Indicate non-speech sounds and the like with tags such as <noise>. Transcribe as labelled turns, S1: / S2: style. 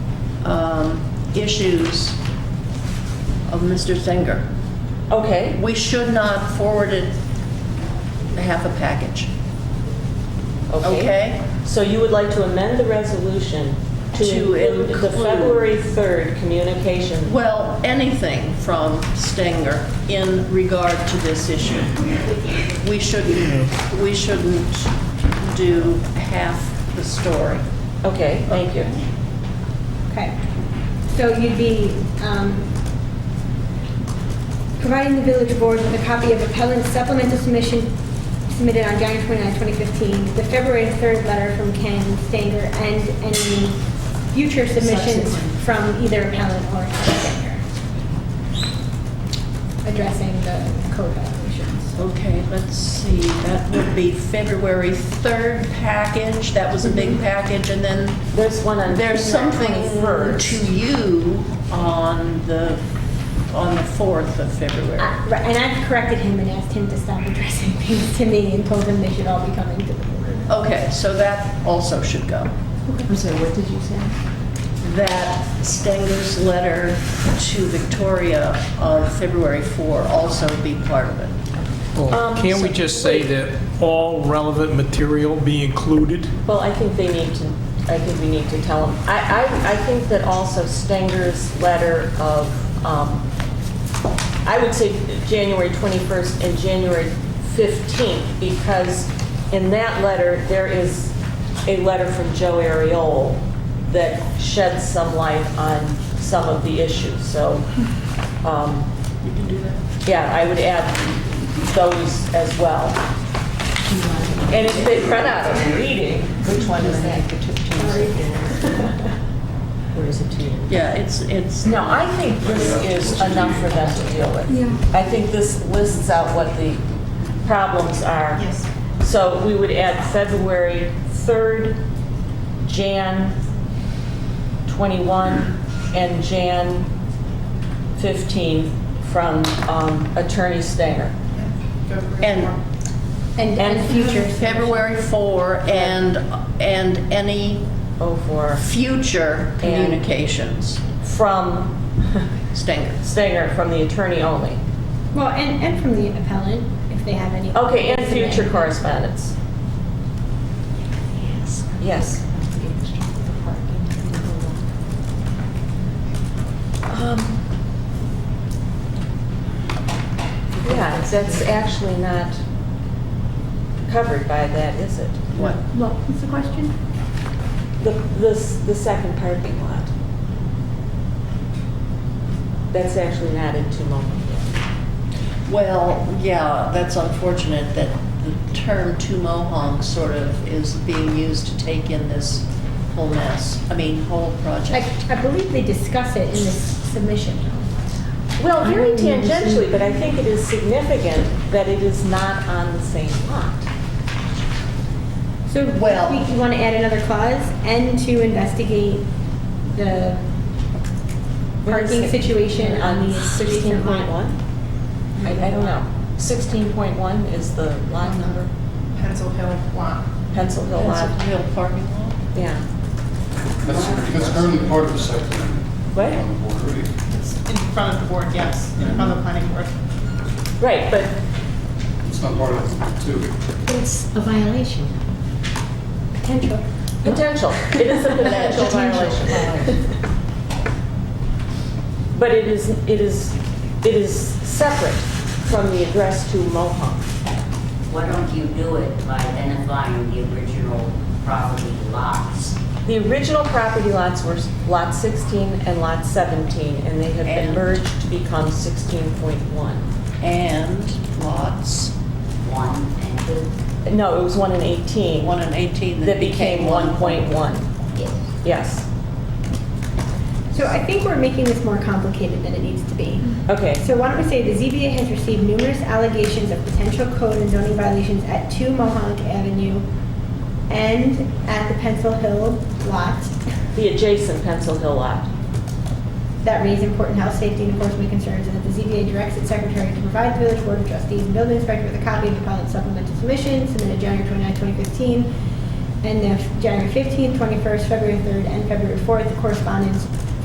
S1: um, issues of Mr. Zenger.
S2: Okay,
S1: We should not forward it a half a package,
S2: okay.
S1: okay?
S2: So you would like to amend the resolution
S1: To
S2: to include the
S1: include-
S2: February 3rd communication?
S1: Well, anything from Stenger in regard to this issue. We shouldn't, we shouldn't do half the story.
S2: Okay, thank you.
S3: Okay. So you'd be um, providing the village board with a copy of appellant supplemental submission submitted on January 29, 2015, the February 3rd letter from Ken Stanger, and any future submissions
S1: Subsequent.
S3: from either appellant or Ken Stanger addressing the code violations.
S1: Okay, let's see, that would be February 3rd package, that was a big package, and then
S2: There's one on.
S1: there's something
S2: February
S1: to you on the, on the 4th of February.
S3: Uh, right, And I've corrected him and asked him to stop addressing things to me and told him they should all be coming to the board.
S1: Okay, so that also should go.
S4: I'm sorry, what did you say?
S1: that Stenger's letter to Victoria of February 4 also be part of it.
S2: Um,
S5: Well, can't we
S2: so-
S5: just say
S2: wait.
S5: that all relevant material be included?
S2: Well, I think they need to, I think we need to tell them. I, I, I think that also Stenger's letter of, um, I would say January 21st and January 15th, because in that letter, there is a letter from Joe Ariol that sheds some light on some of the issues, so, um,
S1: You can do that.
S2: yeah, I would add those as well. And if they run out of reading,
S4: Which one is that? The two- two- Where is it to you?
S1: Yeah, it's, it's,
S2: No, I think this is enough for them to deal with. I think this lists out what the problems are. Yes. So we would add February 3rd, Jan 21, and Jan 15 from um, Attorney Stanger.
S1: and
S3: And
S2: And
S3: and future.
S1: February 4 and, and any
S2: Oh, for,
S1: future communications,
S2: from <laughs>
S1: Stenger.
S2: Stanger, from the attorney only.
S3: Well, and, and from the appellant, if they have any.
S2: Okay, and future correspondence. Yes. Um, Yeah, that's actually not covered by that, is it?
S1: What?
S3: Well, what's the question?
S2: The, this, the second parking lot. That's actually not in two moment yet.
S1: Well, yeah, that's unfortunate that the term two mohawks" sort of is being used to take in this whole mess, I mean, whole
S3: I,
S1: project.
S3: I believe they discuss it in this submission.
S2: Well, very tangentially, but I think it is significant that it is not on the same lot.
S3: So,
S1: Well-
S3: we- you want to add another clause, and to investigate the parking situation on the adjacent lot.
S2: 16.1? I, I don't know. 16.1 is the lot number,
S6: Pencil Hill lot.
S2: Pencil Hill
S1: That's a
S2: lot,
S1: real parking lot.
S2: yeah.
S7: That's, that's currently part of the site plan
S2: What?
S7: on the board, right?
S6: It's in front of the board, yes, in front of the planning board.
S2: Right, but
S7: It's not part of the two.
S4: It's a violation.
S3: Potential.
S2: potential, it
S3: <laughs>
S2: is a potential violation. But it is, it is, it is separate from the address to Mohawk.
S8: Why don't you do it by identifying the original property lots?
S2: The original property lots were Lot 16 and Lot 17, and they have been
S1: And-
S2: merged to become 16.1.
S1: and lots
S8: One and two?
S2: No, it was 1 and 18.
S1: 1 and 18
S2: that became 1.1,
S8: Yes.
S2: yes.
S3: So I think we're making this more complicated than it needs to be.
S2: Okay,
S3: So why don't we say the ZBA has received numerous allegations of potential code and zoning violations at 2 Mohawk Avenue and at the Pencil Hill lot
S2: the adjacent Pencil Hill lot.
S3: that raise important health, safety, and enforcement concerns, and that the ZBA directs its secretary to provide the village board of trustees and building inspector with a copy of the pilot supplemental submission submitted January 29, 2015, and the January 15, 21st, February 3rd, and February 4th correspondence